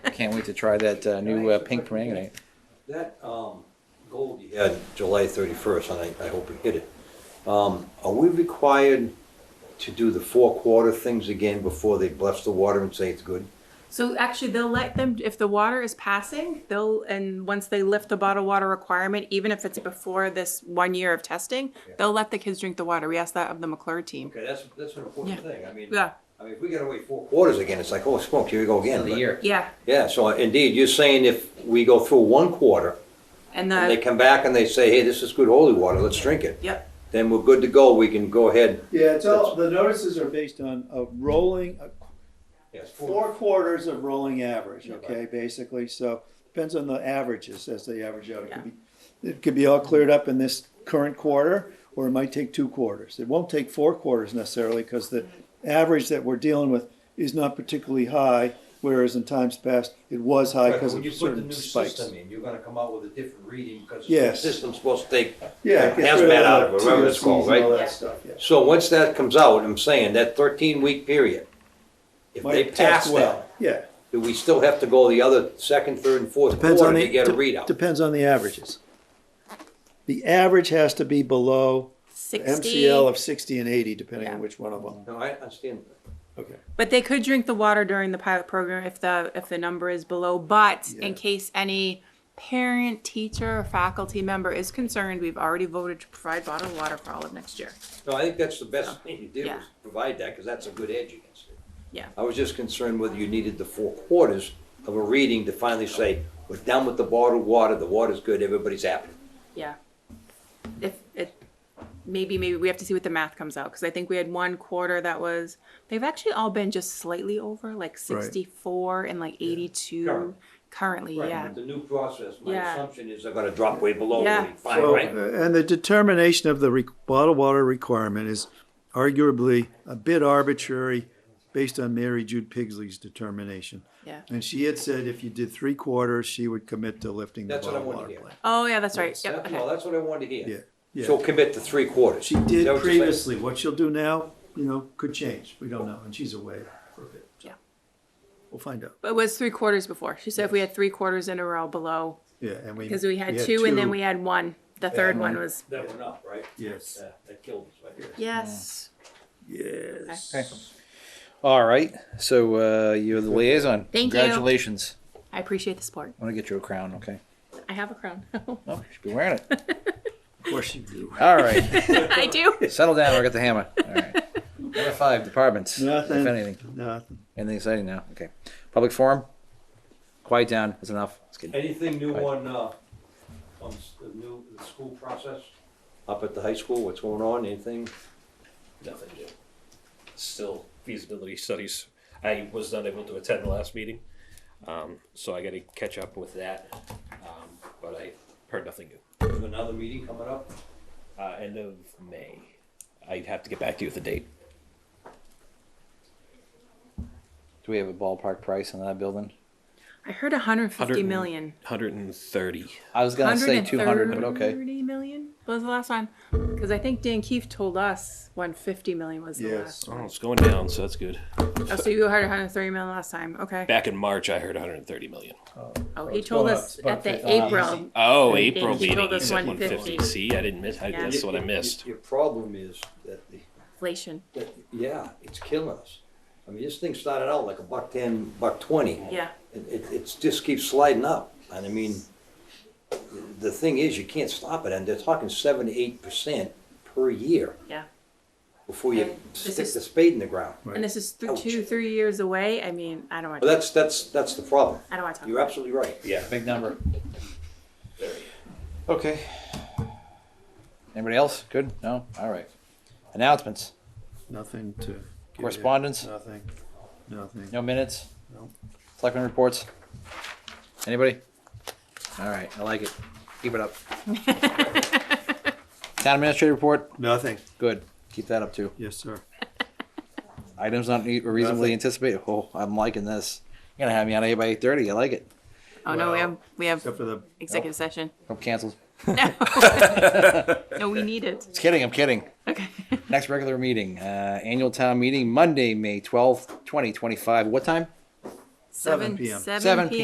can't wait to try that uh, new uh, pink permanganate. That um, goal you had July 31st, and I I hope we hit it. Um, Are we required to do the four-quarter things again before they bless the water and say it's good? So actually, they'll let them, if the water is passing, they'll, and once they lift the bottled water requirement, even if it's before this one year of testing, they'll let the kids drink the water. We asked that of the McClure team. Okay, that's, that's an important Yeah. thing. I mean, Yeah, I mean, if we gotta wait four quarters again, it's like, oh, smoke, here we go again. But- yeah. Yeah, so indeed, you're saying if we go through one quarter, And and they the, come back and they say, hey, this is good holy water, let's drink it, yep, then we're good to go, we can go ahead. Yeah, it's all, the notices are based on a rolling, a Yes, four quarters of rolling average, Yeah, okay, basically, so depends on the averages as they average out. It could be, it could be all cleared up in this current quarter, or it might take two quarters. It won't take four quarters necessarily, because the average that we're dealing with is not particularly high, whereas in times past, it was high because of certain spikes. in, you're gonna come out with a different reading, because the Yes. system's supposed to take. Yeah, it gets Has rid been all out the of it, whatever it's TSCs called, and all right? that stuff, yeah. So once that comes out, I'm saying, that thirteen-week period, if they Might test pass well, that, yeah. do we still have to go the other second, third, and fourth Depends on quarter the. to get a de- readout? Depends on the averages. The average has to be below the sixty. MCL of sixty and eighty, depending on Yeah. which one of them. No, I understand. Okay. But they could drink the water during the pilot program if the, if the number is below, but Yeah. in case any parent, teacher, or faculty member is concerned, we've already voted to provide bottled water for all of next year. No, I think that's the best thing you did Yeah. was provide that, because that's a good edge against it. Yeah. I was just concerned whether you needed the four quarters of a reading to finally say, we're done with the bottled water, the water's good, everybody's happy. Yeah. If it, maybe, maybe we have to see what the math comes out, because I think we had one quarter that was, they've actually all been just slightly over, like Right. sixty-four and like eighty-two Current. currently, yeah. With The new process, my Yeah. assumption is they're gonna drop way below, Yeah. really fine, Well, right? uh, And the determination of the re- bottled water requirement is arguably a bit arbitrary based on Mary Jude Pigsley's determination. Yeah. And she had said if you did three quarters, she would commit to lifting the That's what I bottled wanted water to hear. plan. Oh, yeah, that's right, yep, That- No, okay. that's what I wanted to hear. Yeah, So yeah. commit to three quarters. She Is that did what you're saying? previously, what she'll do now, you know, could change, we don't know, and she's away for a bit. so Yeah. We'll find out. But it was three quarters before, she said if we had three quarters in a row below, Yeah, and we. because we had two and then we had one, the third one one. was, That went up, right? Yes. Yeah, That killed us, right? yes. Yes. Okay. All right, so uh, you're the liaison. Thank you. Congratulations. I appreciate the support, I'm gonna get you a crown, okay? I have a crown, Oh, you should be wearing it. Of course you do. All right. I do. Settle down. I got the hammer. All right. Number five, departments. If anything, Nothing, nothing. anything exciting now? Okay. Public forum. Quiet down. That's enough. Let's get- Anything new Right. on, uh, on s- the new, the school process? Up at the high school, what's going on, anything? Nothing new. Still feasibility studies. I was not able to attend the last meeting, um, so I got to catch up with that. Um, but I heard nothing new. Another meeting coming up? Uh, end of May. I'd have to get back to you with the date. Do we have a ballpark price on that building? I heard hundred and fifty 100 million. 130. I was gonna say 200, but okay. 130 million was the last one because I think Dan Keefe told us 150 million was the Yes. Oh, it's going down, so that's good. last. Oh, so you heard 130 million last time. Okay. Back in March, I heard 130 million. Oh, he it's told gone us up. It's at the about 50. April. Oh, And April he meeting. told He us said 150. 150. See, I didn't miss. I, Yeah. That's what I Your- your- missed. Your problem is that the, Inflation. that- yeah, it's killing us. I mean, this thing started out like a buck ten, buck twenty. Yeah. It, it- it's just keeps sliding up, and I mean, the thing is, you can't stop it, and they're talking seven to eight percent per year Yeah. before you And this stick is- the spade in the ground. And this is th- Ouch. two, three years away. I mean, I don't want. But that's, that's, that's the problem. I don't want to talk. You're About absolutely right. Yeah. Big number. Okay. Anybody else? Good. No. All right. Announcements. Nothing to. give you. Correspondence? Nothing, nothing. No minutes. No. Selectmen reports. Anybody? All right. I like it. Keep it up. Town administrator report. Nothing, Good. Keep that up too. yes, sir. Items not e- reasonably Nothing. anticipated. Oh, I'm liking this. You're gonna have me out of here by eight thirty. I like it. it. Oh no, we have we have Except for the, executive session. I'm canceled. No. no, we need it. Just kidding. I'm kidding. Okay. Next regular meeting, uh, annual town meeting, Monday, May twelfth, twenty twenty-five. What time? Seven p.m. Seven Seven p.m.